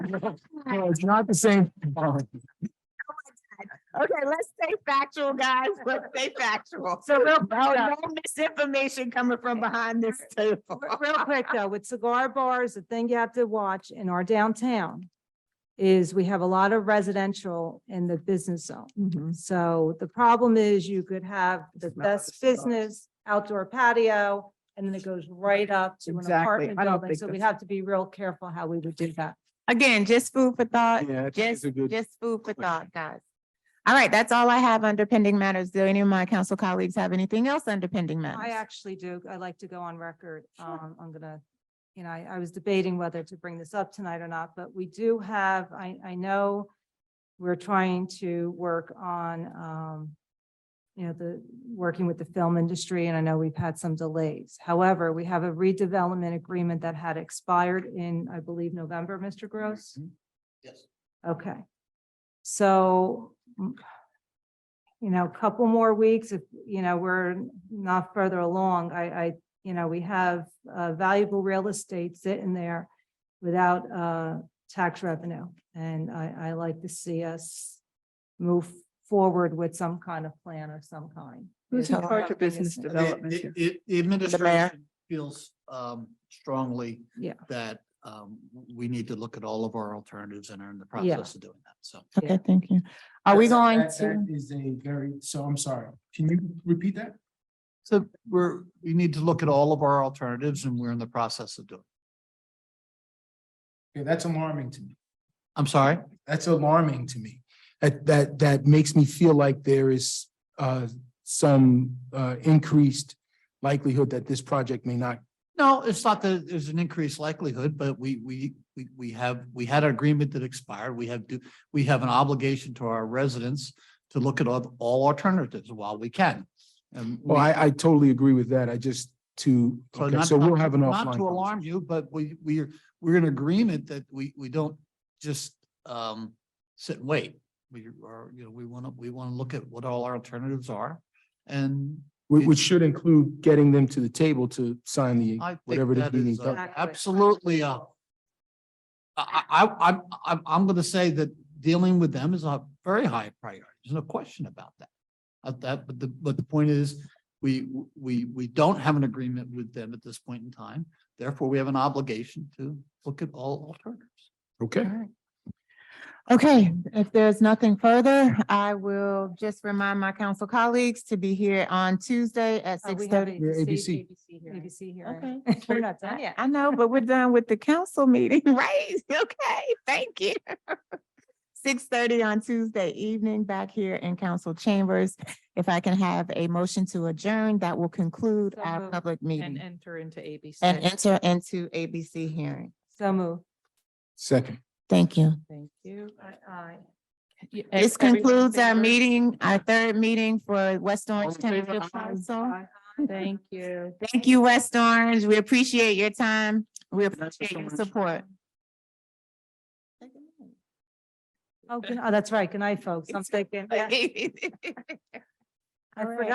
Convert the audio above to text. No, It's not the same. Okay, let's stay factual, guys. Let's stay factual. So real, Oh, no misinformation coming from behind this table. Real quick though, with cigar bars, the thing you have to watch in our downtown is we have a lot of residential in the business zone. Mm-hmm. So the problem is you could have Smell the of best cigars. business outdoor patio and then it goes right up to an Exactly. apartment I don't building. think So we'd that's- have to be real careful how we would do that. Again, just food for thought. Yeah, I think it's Just, a good- just food for question. thought, guys. All right, that's all I have under pending matters. Do any of my council colleagues have anything else under pending I matters? actually do. I like to go on record. Um, I'm gonna, you know, I, I was debating whether to bring this up tonight or not, but we do have, I, I know we're trying to work on, um, you know, the, working with the film industry, and I know we've had some delays. However, we have a redevelopment agreement that had expired in, I believe, November, Mr. Gross? Yes. Okay. So, mm, you know, a couple more weeks, if, you know, we're not further along, I, I, you know, we have uh, valuable real estate sitting there without uh, tax revenue. And I, I like to see us move forward with some kind of plan of some kind. Who's in charge of Something is- business The- development here? the- the Administration feels um strongly. Yeah. That um we need to look at all of our alternatives and are in the process of doing that, so. Okay, thank you. Are we going That- to? that Is a very, so I'm sorry, can you repeat that? So we're, we need to look at all of our alternatives and we're in the process of doing. Okay, that's alarming to me. I'm sorry? That's alarming to me. That, that, that makes me feel like there is, uh, some, uh, increased likelihood that this project may not. No, it's not that there's an increased likelihood, but we, we, we, we have, we had an agreement that expired. We have, do we have an obligation to our residents to look at all, all alternatives while we can. And Well, we- I, I totally agree with that. I just to, So okay, not- so we'll not- have an offline. Not to conversation. alarm you, but we, we're, we're in agreement that we, we don't just, um, sit and wait. We are, you know, we want to, we want to look at what all our alternatives are. And Which, which should include getting them to the table to sign the, I whatever think it is that we need is done. uh, absolutely, uh, I, I, I- I'm, I'm, I'm going to say that dealing with them is a very high priority. There's no question about that. Of that, but the, but the point is, we, we, we don't have an agreement with them at this point in time. Therefore, we have an obligation to look at all alternatives. okay? Okay, if there's nothing further, I will just remind my council colleagues to be here on Tuesday at Oh, six we have thirty. We're ABC, hearing. ABC Okay. hearing. We're not done yet. I know, but we're done with the council meeting, right? Okay, thank you. Six thirty on Tuesday evening back here in council chambers. If I can have a motion to adjourn, that will conclude So our moved. public And meeting enter into ABC. and enter into ABC hearing. So move. Second. Thank you. Thank you. Aye. Y- and This everyone in concludes our favor? meeting, our third meeting for West Orange All in favor, Town aye. Council. Thank you. Thank you, West Orange. We appreciate your time. We appreciate your support. Oh, good- oh, that's right. Good night, folks. I'm thinking. yeah. I All right. forgot.